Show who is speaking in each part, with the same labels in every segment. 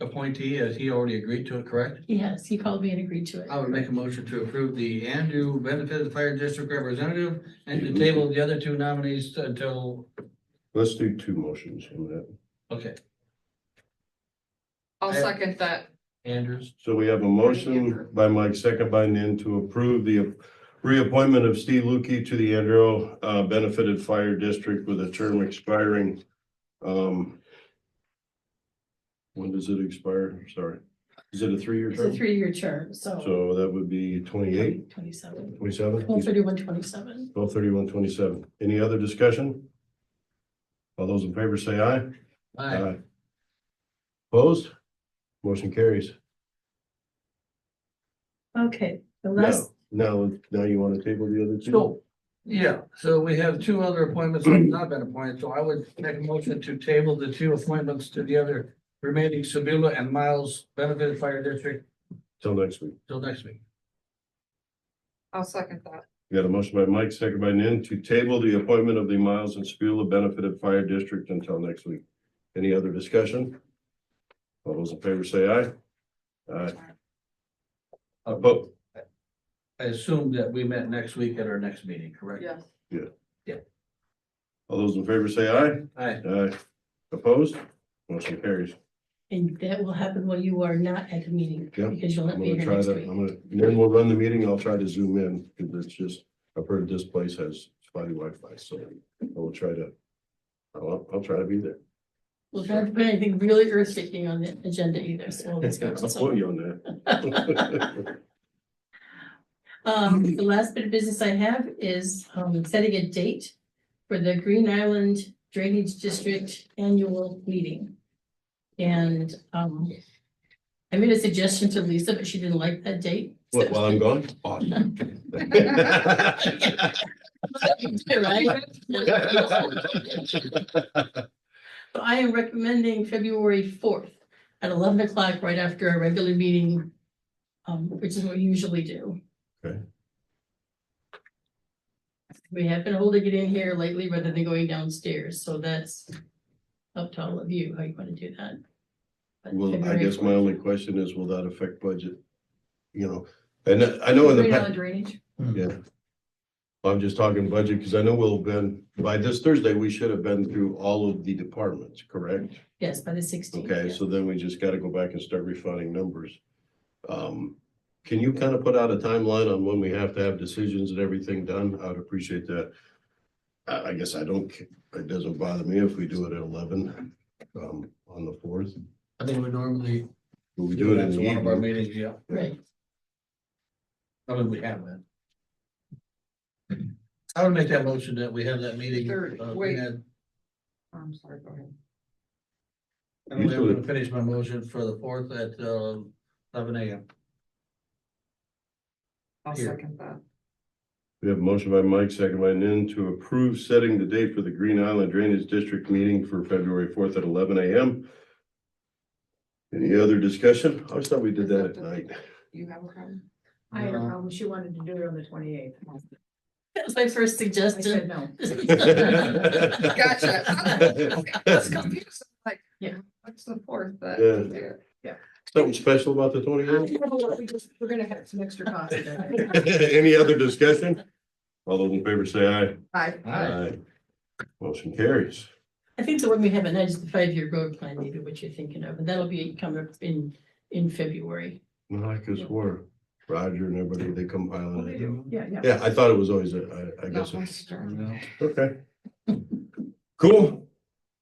Speaker 1: appointee, as he already agreed to it, correct?
Speaker 2: Yes, he called me and agreed to it.
Speaker 1: I would make a motion to approve the Andrew Benefit Fire District Representative and to table the other two nominees until,
Speaker 3: Let's do two motions in that.
Speaker 1: okay,
Speaker 4: I'll second that.
Speaker 1: Andrews.
Speaker 3: So we have a motion by Mike, second by Nan to approve the reappointment of Steve Lukey to the Andrew uh, Benefited Fire District with a term expiring. um, When does it expire? I'm Sorry. Is it a three-year
Speaker 2: It's a
Speaker 3: term?
Speaker 2: three-year term, so.
Speaker 3: So that would be twenty-eight,
Speaker 2: Twenty-seven. Well,
Speaker 3: twenty-seven,
Speaker 2: thirty-one, twenty-seven.
Speaker 3: twelve, thirty-one, twenty-seven. Any other discussion? All those in favor say aye. Uh,
Speaker 1: Aye.
Speaker 3: Opposed? Motion carries.
Speaker 2: Okay, the
Speaker 3: Now,
Speaker 2: last,
Speaker 3: now, now you want to table the other two?
Speaker 1: So, yeah, so we have two other appointments that have not been appointed, so I would make a motion to table the two appointments to the other remaining Sabula and Miles Benefit Fire District
Speaker 3: Till next week.
Speaker 1: till next week.
Speaker 4: I'll second that.
Speaker 3: We got a motion by Mike, second by Nan, to table the appointment of the Miles and Spula Benefited Fire District until next week. Any other discussion? All those in favor say aye. Aye. Uh, Oppo-
Speaker 1: I assume that we met next week at our next meeting, correct?
Speaker 4: Yes.
Speaker 3: all those in favor say aye.
Speaker 1: Aye.
Speaker 3: Aye. Opposed? Motion carries.
Speaker 2: and that will happen while you are not at the meeting,
Speaker 3: Yeah,
Speaker 2: because you'll not
Speaker 3: I'm
Speaker 2: be
Speaker 3: gonna
Speaker 2: here
Speaker 3: try
Speaker 2: next
Speaker 3: that.
Speaker 2: week.
Speaker 3: I'm gonna, then we'll run the meeting. I'll try to zoom in because it's just, I've heard this place has spotty Wi-Fi, so I will try to. I'll, I'll try to be there.
Speaker 2: We'll try to put anything really earth shaking on the agenda either, so we'll
Speaker 3: I'll
Speaker 2: discuss.
Speaker 3: put you on that.
Speaker 2: Um, the last bit of business I have is, um, setting a date for the Green Island Drainage District Annual Meeting. And, um, I made a suggestion to Lisa, but she didn't like that date.
Speaker 3: What, while I'm gone? Awesome.
Speaker 2: Right? So I am recommending February fourth at eleven o'clock, right after our regular meeting, um, which is what we usually do.
Speaker 3: Okay.
Speaker 2: We have been holding it in here lately rather than going downstairs, so that's up to all of you, how you wanna do that. But
Speaker 3: Well, I
Speaker 2: February
Speaker 3: guess my
Speaker 2: 4th.
Speaker 3: only question is, will that affect budget? You know, and I know in the,
Speaker 2: Green Island
Speaker 3: pa-
Speaker 2: Drainage,
Speaker 3: yeah. I'm just talking budget, because I know we'll been, by this Thursday, we should have been through all of the departments, correct?
Speaker 2: yes, by the sixteenth.
Speaker 3: Okay, so then we just gotta go back and start refining numbers. Um, can you kind of put out a timeline on when we have to have decisions and everything done? I'd appreciate that. I, I guess I don't, ca- it doesn't bother me if we do it at eleven, um, on the fourth.
Speaker 1: I think we normally
Speaker 3: We
Speaker 1: do
Speaker 3: do it
Speaker 1: that
Speaker 3: in
Speaker 1: to
Speaker 3: the
Speaker 1: one of our
Speaker 3: evening.
Speaker 1: meetings, yeah.
Speaker 2: Right,
Speaker 1: I mean, we have that. I would make that motion that we have that meeting.
Speaker 4: Third,
Speaker 1: uh,
Speaker 4: wait.
Speaker 1: and-
Speaker 4: I'm sorry, go ahead.
Speaker 1: And
Speaker 3: You
Speaker 1: I'm gonna
Speaker 3: should-
Speaker 1: finish my motion for the fourth at um, eleven AM.
Speaker 4: I'll
Speaker 1: Here.
Speaker 4: second that.
Speaker 3: We have a motion by Mike, second by Nin to approve setting the date for the Green Island Drainage District meeting for February fourth at eleven AM. Any other discussion? I always thought we did that at night.
Speaker 4: You have a problem?
Speaker 5: I had a
Speaker 1: Yeah.
Speaker 5: problem. She wanted to do it on the twenty eighth.
Speaker 2: that was my first
Speaker 5: I said
Speaker 2: suggestion.
Speaker 5: no.
Speaker 4: Gotcha. That's confusing, like,
Speaker 2: Yeah.
Speaker 4: what's the fourth that?
Speaker 3: Yeah. Something special about the twenty eighth?
Speaker 5: We just- We're gonna have some extra costs. today.
Speaker 3: Any other discussion? All those in favor say aye.
Speaker 4: Aye.
Speaker 1: Aye.
Speaker 3: Motion carries.
Speaker 2: I think the one we haven't had is the five-year road plan, maybe what you're thinking of, and that'll be coming up in, in February.
Speaker 3: Well, I guess we're Roger and everybody, they compiling it.
Speaker 5: Yeah, yeah.
Speaker 3: Yeah, I thought it was always, a- I, I guess,
Speaker 4: Not my
Speaker 3: it's-
Speaker 4: turn.
Speaker 3: okay. Cool.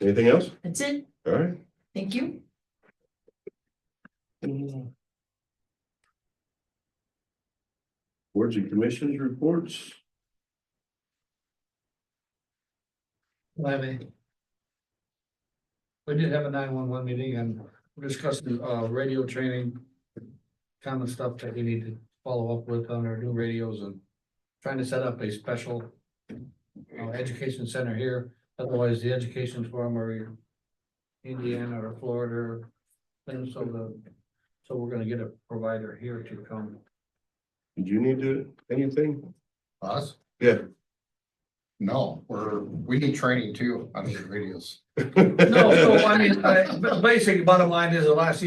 Speaker 3: Anything else?
Speaker 2: That's it.
Speaker 3: All right.
Speaker 2: Thank you.
Speaker 3: Boards and commissions reports.
Speaker 1: Levy. We did have a nine-one-one meeting and we're discussing, uh, radio training. Common stuff that we need to follow up with on our new radios and trying to set up a special. Uh, education center here, otherwise the education forum are in Indiana or Florida. And so the, so we're gonna get a provider here to come.
Speaker 3: Did you need to, anything?
Speaker 6: Us?
Speaker 3: Yeah.
Speaker 6: No, we're, we need training too on these radios.
Speaker 1: No, no, I mean, I, basically, bottom line is the last